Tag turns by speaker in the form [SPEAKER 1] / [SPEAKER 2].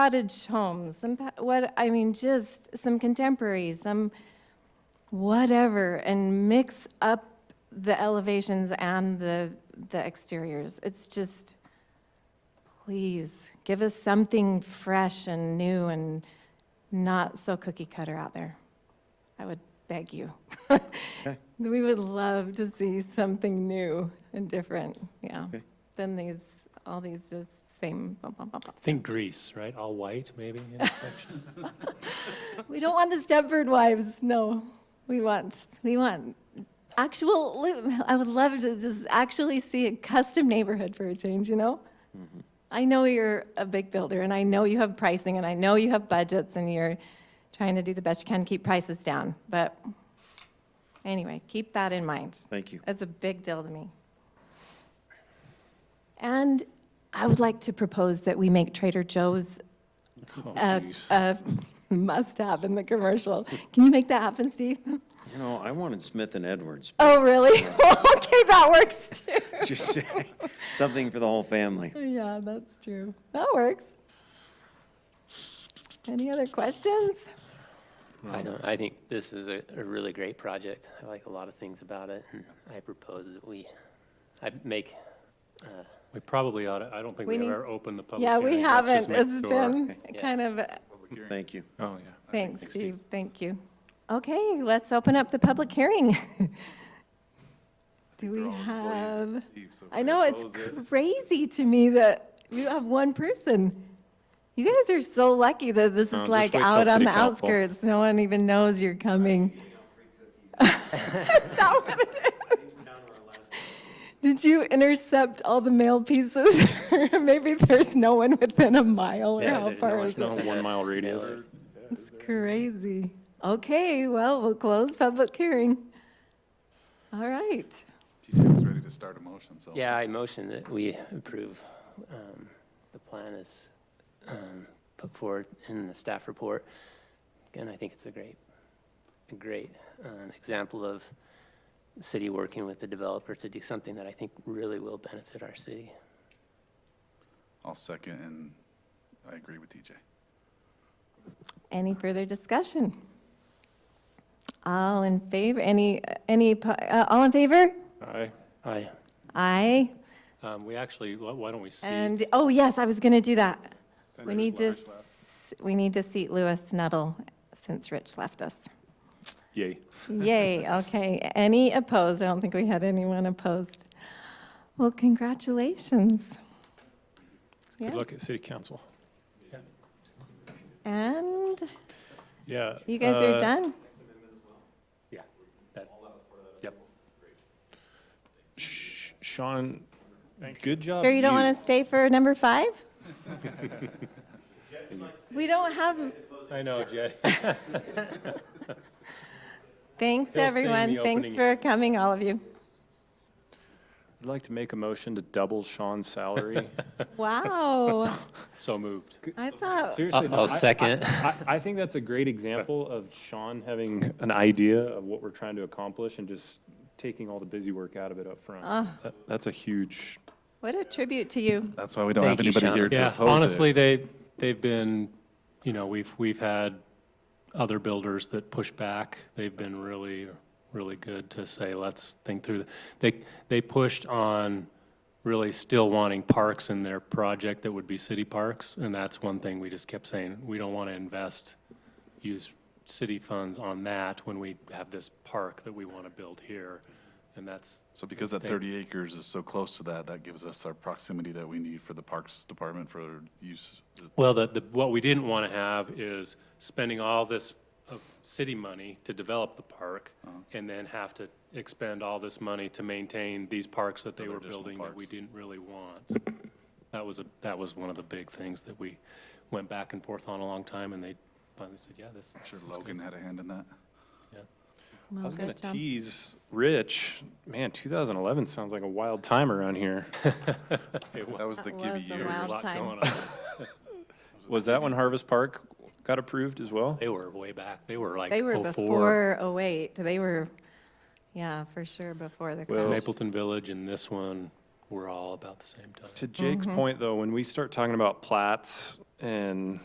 [SPEAKER 1] cottage homes, some, pa- what, I mean, just some contemporary, some whatever, and mix up the elevations and the, the exteriors. It's just, please, give us something fresh and new and not so cookie cutter out there. I would beg you. We would love to see something new and different, yeah,
[SPEAKER 2] Okay.
[SPEAKER 1] than these, all these just same bum, bum, bum, bum.
[SPEAKER 3] Think Greece, right? All white, maybe, in a section.
[SPEAKER 1] We don't want the Stepford wives, no. We want, we want actual, li- I would love to just actually see a custom neighborhood for a change, you know? I know you're a big builder, and I know you have pricing, and I know you have budgets, and you're trying to do the best you can to keep prices down, but anyway, keep that in mind.
[SPEAKER 2] Thank you.
[SPEAKER 1] That's a big deal to me. And I would like to propose that we make Trader Joe's
[SPEAKER 3] Oh,
[SPEAKER 1] a, a must-have in the commercial. Can you make that happen, Steve?
[SPEAKER 2] You know, I wanted Smith and Edwards,
[SPEAKER 1] Oh, really? okay, that works too.
[SPEAKER 2] just say, something for the whole family.
[SPEAKER 1] Yeah, that's true. That works. Any other questions?
[SPEAKER 4] I don't, I think this is a, a really great project. I like a lot of things about it, and I propose that we, I make,
[SPEAKER 3] We probably ought to, I don't think
[SPEAKER 1] We
[SPEAKER 3] we've
[SPEAKER 1] need-
[SPEAKER 3] ever opened the public
[SPEAKER 1] Yeah,
[SPEAKER 3] hearing.
[SPEAKER 1] we
[SPEAKER 3] Oh, Let's
[SPEAKER 1] haven't.
[SPEAKER 3] just make
[SPEAKER 1] It's
[SPEAKER 3] sure.
[SPEAKER 1] been
[SPEAKER 4] Yeah.
[SPEAKER 1] kind of,
[SPEAKER 2] Thank you.
[SPEAKER 3] Oh, yeah.
[SPEAKER 1] thanks, Steve, thank you. Okay, let's open up the public hearing. Do we have? I know, it's crazy to me that you have one person. You guys are so lucky that this
[SPEAKER 3] No,
[SPEAKER 1] is
[SPEAKER 3] just
[SPEAKER 1] like
[SPEAKER 3] wait till
[SPEAKER 1] out on
[SPEAKER 3] city
[SPEAKER 1] the
[SPEAKER 3] council.
[SPEAKER 1] outskirts. No one even knows you're coming. Is that what it is? Did you intercept all the mail pieces? Maybe there's no one within a mile or
[SPEAKER 4] Yeah,
[SPEAKER 1] how
[SPEAKER 4] there's no
[SPEAKER 1] far
[SPEAKER 4] one-
[SPEAKER 1] is
[SPEAKER 3] No
[SPEAKER 1] it?
[SPEAKER 4] It's, uh,
[SPEAKER 3] one mile radius.
[SPEAKER 1] It's crazy. Okay, well, we'll close public hearing. All right.
[SPEAKER 5] TJ was ready to start a motion, so.
[SPEAKER 4] yeah, I motion that we approve, um, the plan is, um, put forward in the staff report. And I think it's a great, a great, um, example of the city working with the developer to do something that I think really will benefit our city.
[SPEAKER 5] I'll second, and I agree with TJ.
[SPEAKER 1] Any further discussion? All in favor, any, any, po- uh, all in favor?
[SPEAKER 3] Aye.
[SPEAKER 4] I,
[SPEAKER 1] Aye.
[SPEAKER 3] Um, we actually, why why don't we see?
[SPEAKER 1] And, oh, yes, I was going to do that. We
[SPEAKER 5] Senator's
[SPEAKER 1] need to,
[SPEAKER 5] Lodge left.
[SPEAKER 1] s- we need to seat Lewis Nuttall since Rich left us.
[SPEAKER 3] Yay.
[SPEAKER 1] Yay, okay. Any opposed? I don't think we had anyone opposed. Well, congratulations.
[SPEAKER 3] Good
[SPEAKER 1] Yes.
[SPEAKER 3] luck at city council.
[SPEAKER 1] And
[SPEAKER 3] Yeah.
[SPEAKER 1] you guys are
[SPEAKER 3] uh,
[SPEAKER 1] done?
[SPEAKER 3] Yeah. that- Yep. Sh- Sean, good job.
[SPEAKER 1] Sure you don't want to stay for number five? We don't have,
[SPEAKER 3] I know, Jay.
[SPEAKER 1] Thanks,
[SPEAKER 3] He'll sing
[SPEAKER 1] everyone.
[SPEAKER 3] the
[SPEAKER 1] Thanks
[SPEAKER 3] opening.
[SPEAKER 1] for coming, all of you.
[SPEAKER 6] I'd like to make a motion to double Sean's salary.
[SPEAKER 1] Wow.
[SPEAKER 3] So moved.
[SPEAKER 1] I thought,
[SPEAKER 6] Seriously, though,
[SPEAKER 4] I'll
[SPEAKER 6] I- I-
[SPEAKER 4] second.
[SPEAKER 6] I, I think that's a great example of Sean having an idea of what we're trying to accomplish and just taking all the busy work out of it up front.
[SPEAKER 4] Ah.
[SPEAKER 6] That- That's a huge,
[SPEAKER 1] what a tribute to you.
[SPEAKER 5] That's why we don't
[SPEAKER 4] Thank
[SPEAKER 5] have
[SPEAKER 4] you,
[SPEAKER 5] anybody
[SPEAKER 4] Sean.
[SPEAKER 5] here to
[SPEAKER 3] Yeah,
[SPEAKER 5] oppose it.
[SPEAKER 3] honestly, they, they've been, you know, we've, we've had other builders that push back. They've been really, really good to say, let's think through. th-" They, they pushed on really still wanting parks in their project that would be city parks. And that's one thing we just kept saying, we don't want to invest, use city funds on that when we have this park that we want to build here. And that's,
[SPEAKER 5] So because that thirty acres is so close to that, that gives us our proximity that we need for the Parks Department for use.
[SPEAKER 3] Well, the, the, what we didn't want to have is spending all this of city money to develop the park
[SPEAKER 5] Uh-huh.
[SPEAKER 3] and then have to expend all this money to maintain these parks that they were
[SPEAKER 5] additional
[SPEAKER 3] building that we
[SPEAKER 5] parks.
[SPEAKER 3] didn't really want. That was a, that was one of the big things that we went back and forth on a long time and they finally said, yeah, this.
[SPEAKER 5] Sure Logan had a hand in that.
[SPEAKER 6] I was going
[SPEAKER 1] good
[SPEAKER 6] to
[SPEAKER 1] job.
[SPEAKER 6] tease Rich, man, 2011 sounds like a wild time around here.
[SPEAKER 5] That was the
[SPEAKER 1] That
[SPEAKER 5] Gibby
[SPEAKER 1] was a
[SPEAKER 5] years.
[SPEAKER 1] wild
[SPEAKER 3] A lot
[SPEAKER 1] Time.
[SPEAKER 3] going on.
[SPEAKER 6] Was that when Harvest Park got approved as well?
[SPEAKER 3] They were way back. They were like oh
[SPEAKER 1] They were
[SPEAKER 3] before
[SPEAKER 1] before 08. They were, yeah, for sure, before the
[SPEAKER 6] Well-
[SPEAKER 1] crash.
[SPEAKER 3] Mapleton Village and this one were all about the same time.
[SPEAKER 4] Mm-hmm.
[SPEAKER 6] To Jake's point, though, when we start talking about plats And